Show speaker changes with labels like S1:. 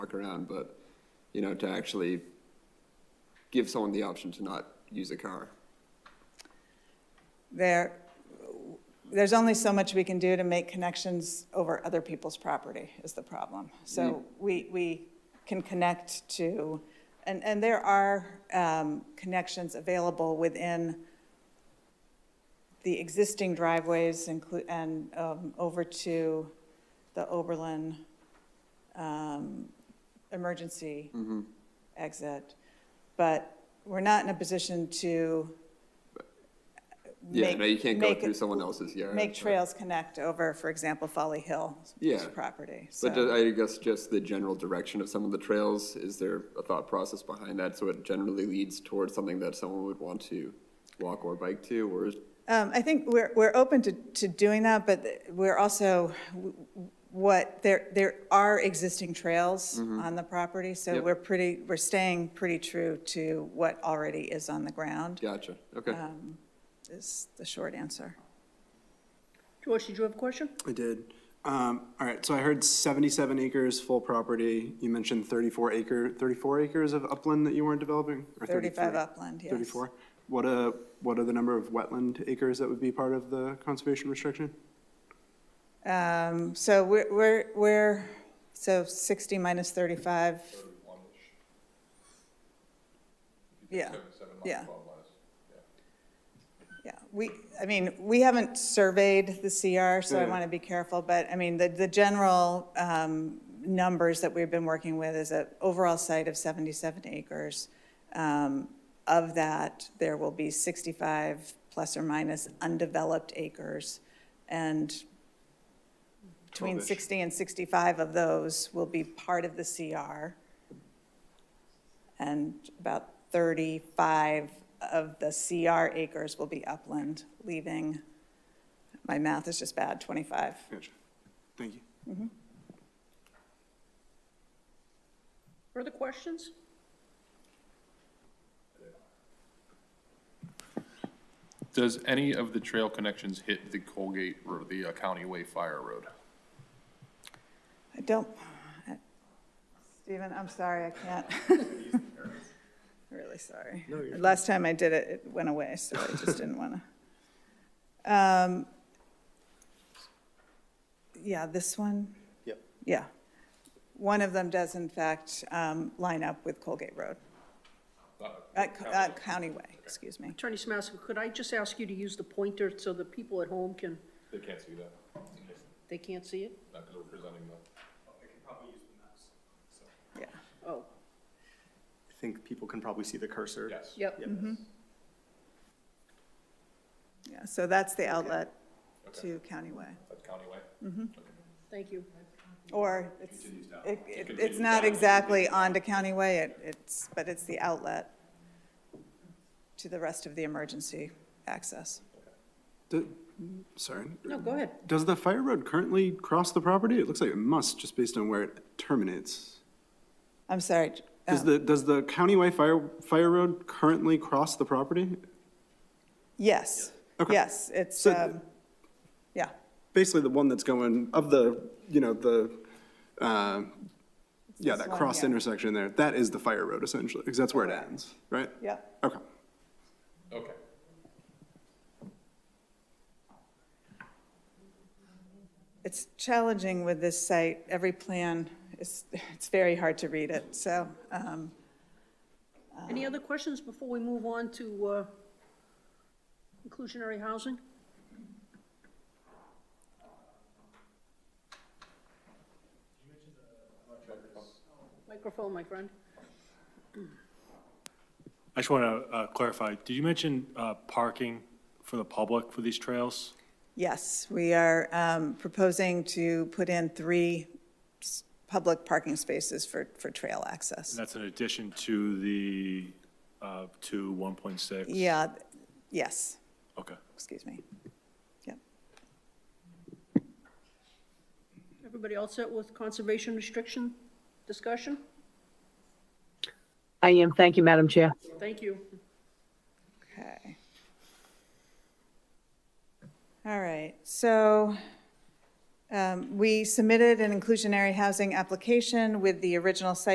S1: walk around, but, you know, to actually give someone the option to not use a car.
S2: There, there's only so much we can do to make connections over other people's property is the problem.
S1: Mm.
S2: So we, we can connect to, and, and there are um, connections available within the existing driveways include, and um, over to the Oberlin um, emergency
S1: Mm-hmm.
S2: exit. But we're not in a position to
S1: Yeah,
S2: make-
S1: no, you can't go
S2: make-
S1: through someone else's yard.
S2: make
S1: but-
S2: trails connect over, for example, Folly Hill
S1: Yeah.
S2: property,
S1: But
S2: so.
S1: ju- I guess just the general direction of some of the trails, is there a thought process behind that? So it generally leads towards something that someone would want to walk or bike to, or is
S2: Um, I think we're, we're open to, to doing that, but we're also, w- what, there, there are existing trails on the property, so
S1: Mm-hmm. Yep.
S2: we're pretty, we're staying pretty true to what already is on the ground,
S1: Gotcha, okay.
S2: Uh, is the short answer.
S3: George, did you have a question?
S4: I did. Um, all right, so I heard seventy-seven acres full property. You mentioned thirty-four acre, thirty-four acres of upland that you weren't developing? or
S2: 35
S4: 33?
S2: upland, yes.
S4: Thirty-four? What, uh, what are the number of wetland acres that would be part of the conservation restriction?
S2: Um, So we're, we're, we're, so 60 minus 35. Yeah, yeah. Yeah, we, I mean, we haven't surveyed the CR, so I
S4: Yeah.
S2: want to be careful, but I mean, the, the general um, numbers that we've been working with is an overall site of 77 acres. Um, Of that, there will be 65 plus or minus undeveloped acres, and between
S4: 12-ish.
S2: 60 and 65 of those will be part of the CR. And about 35 of the CR acres will be upland, leaving, my math is just bad, 25.
S4: Gotcha. Thank you.
S3: Further questions?
S5: Does any of the trail connections hit the Colgate Road, the uh, County Way Fire Road?
S2: I don't, Stephen, I'm sorry, I can't. Really sorry. Last time I did it, it went away, so I just didn't want to. Yeah, this one?
S4: Yep.
S2: Yeah. One of them does in fact um, line up with Colgate Road. Uh, co- uh, County Way, excuse me.
S3: Attorney Samasco, could I just ask you to use the pointer so the people at home can,
S5: They can't see that,
S3: they can't see it?
S5: not because we're presenting them.
S2: Yeah.
S3: Oh,
S6: I think people can probably see the cursor.
S5: Yes.
S3: yep,
S2: Yeah, so that's the outlet to County Way.
S5: That's County Way?
S3: thank you.
S2: Or it's, it, it- it's not exactly onto County Way, it, it's, but it's the outlet to the rest of the emergency access.
S4: Do- Sorry.
S3: No, go ahead.
S4: Does the fire road currently cross the property? It looks like it must, just based on where it terminates.
S2: I'm sorry, uh,
S4: Does the, does the countywide fire, fire road currently cross the property?
S2: yes,
S4: Okay.
S2: yes, it's,
S4: So-
S2: um, yeah,
S4: basically the one that's going of the, you know, the, uh, yeah,
S2: this
S4: that
S2: one,
S4: cross
S2: yeah.
S4: intersection there, that is the fire road essentially, because that's where it ends, right?
S2: yeah.
S4: Okay.
S5: Okay.
S2: It's challenging with this site, every plan is, it's very hard to read it, so, um,
S3: Any other questions before we move on to uh, inclusionary housing? Microphone, my friend.
S7: I just want to clarify, did you mention uh, parking for the public for these trails?
S2: yes, we are, um, proposing to put in three s- public parking spaces for, for trail access.
S7: And that's in addition to the, uh, to 1.6?
S2: Yeah, th- yes,
S7: Okay.
S2: excuse me. Yep.
S3: Everybody all set with conservation restriction discussion?
S8: I am. Thank you, Madam Chair.
S3: Thank you.
S2: Okay. All right, so Um, We submitted an inclusionary housing application with the original site